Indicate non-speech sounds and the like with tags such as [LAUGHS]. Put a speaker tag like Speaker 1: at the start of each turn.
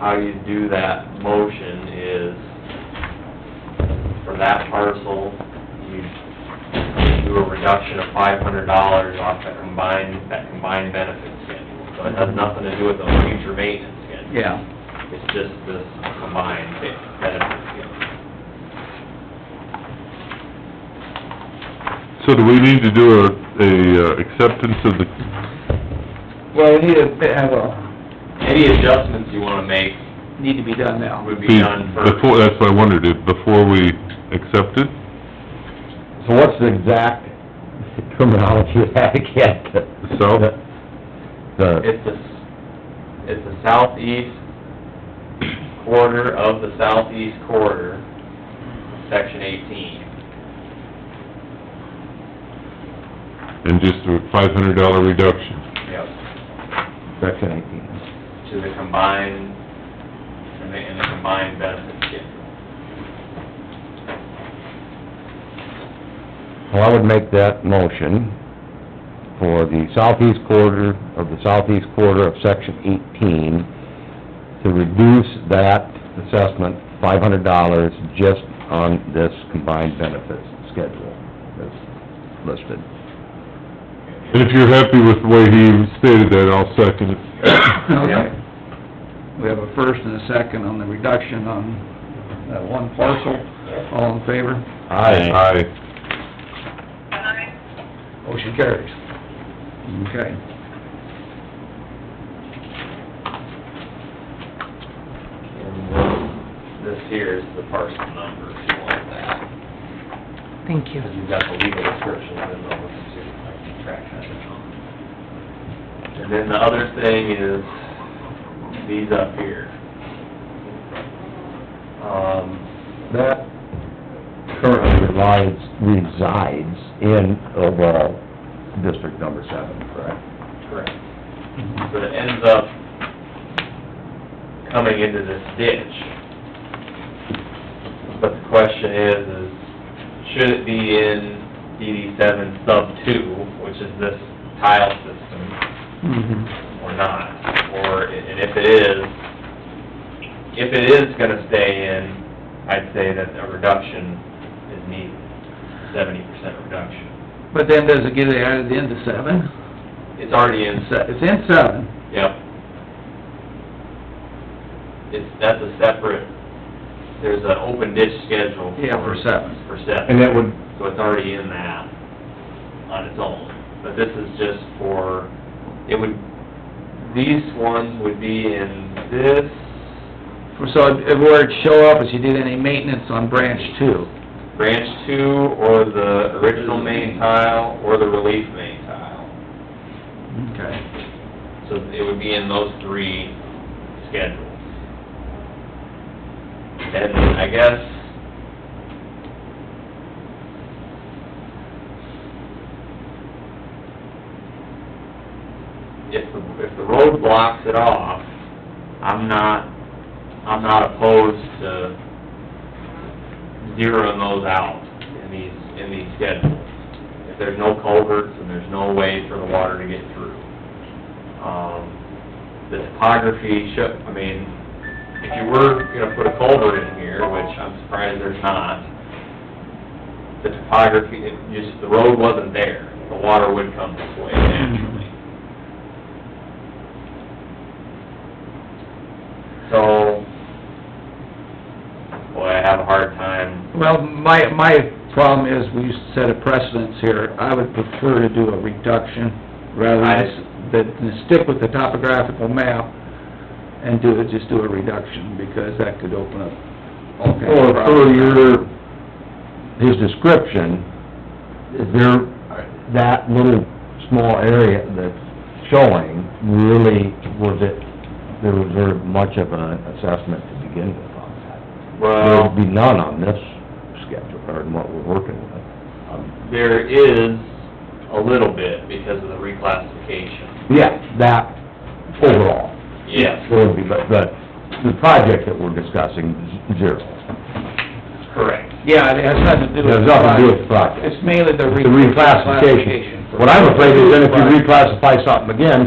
Speaker 1: how you do that motion is, for that parcel, you do a reduction of five hundred dollars off the combined, that combined benefit schedule. So it has nothing to do with the future maintenance schedule.
Speaker 2: Yeah,
Speaker 1: It's just this combined benefit schedule.
Speaker 3: So do we need to do a, a uh, acceptance of the,
Speaker 2: well, we need to have a,
Speaker 1: Any adjustments you wanna make
Speaker 2: need to be done now.
Speaker 1: would be done first.
Speaker 3: before, that's what I wondered, if before we accept it?
Speaker 4: So what's the exact terminology [LAUGHS] of that again?
Speaker 3: South?
Speaker 4: The,
Speaker 1: It's the, it's the southeast quarter of the southeast quarter, section eighteen.
Speaker 3: And just a five hundred dollar reduction?
Speaker 1: Yep.
Speaker 4: section eighteen.
Speaker 1: To the combined, and the, and the combined benefit schedule.
Speaker 4: Well, I would make that motion for the southeast quarter of the southeast quarter of section eighteen to reduce that assessment five hundred dollars just on this combined benefits schedule that's listed.
Speaker 3: And if you're happy with the way he stated that, I'll second it.
Speaker 2: Okay. We have a first and a second on the reduction on that one parcel. All in favor?
Speaker 3: Aye.
Speaker 2: Motion carries. Okay.
Speaker 1: And this, this here is the parcel number, if you want that.
Speaker 5: Thank you.
Speaker 1: Cause you've got the legal description and all this, too, I can track that down. And then the other thing is, these up here. Um,
Speaker 4: That currently resides, resides in overall District Number Seven, correct?
Speaker 1: Correct. But it ends up coming into this ditch. But the question is, is should it be in DD seven sub two, which is this tile system,
Speaker 2: Mhm.
Speaker 1: or not? Or, and if it is, if it is gonna stay in, I'd say that a reduction is needed, seventy percent reduction.
Speaker 2: But then does it get added into seven?
Speaker 1: It's already in
Speaker 2: It's it's in seven.
Speaker 1: Yep. It's, that's a separate, there's an open ditch schedule.
Speaker 2: Yeah, for seven.
Speaker 1: For seven.
Speaker 4: And that would-
Speaker 1: So it's already in that on its own. But this is just for, it would, these ones would be in this,
Speaker 2: So it- where it'd show up is you did any maintenance on branch two.
Speaker 1: branch two, or the original main tile, or the relief main tile.
Speaker 2: Okay.
Speaker 1: So it would be in those three schedules. And I guess... If the, if the road blocks it off, I'm not, I'm not opposed to zeroing those out in these, in these schedules. If there's no culverts and there's no way for the water to get through. Um, the topography should, I mean, if you were gonna put a culvert in here, which I'm surprised there's not, the topography, it just, the road wasn't there, the water would come this way naturally. So, boy, I have a hard time,
Speaker 2: Well, my, my problem is we set a precedence here. I would prefer to do a reduction rather than, s- than stick with the topographical map and do it, just do a reduction because that could open up all kinds
Speaker 4: Or
Speaker 2: of
Speaker 4: per
Speaker 2: problems.
Speaker 4: your, his description, is there, that little small area that's showing, really, was it, there was very much of an assessment to begin with on that? There
Speaker 1: well...
Speaker 4: would be none on this schedule, or in what we're working with. Um,
Speaker 1: There is a little bit because of the reclassification.
Speaker 4: Yeah, that overall.
Speaker 1: Yes,
Speaker 4: There would be, but, but the project that we're discussing, z- zero.
Speaker 1: correct.
Speaker 2: Yeah, it has nothing to do
Speaker 4: It
Speaker 2: with.
Speaker 4: has nothing to do with the
Speaker 2: the
Speaker 4: project.
Speaker 2: It's mainly the
Speaker 4: The reclassification.
Speaker 2: reclassification.
Speaker 4: What I'm afraid is that if you reclassify something again,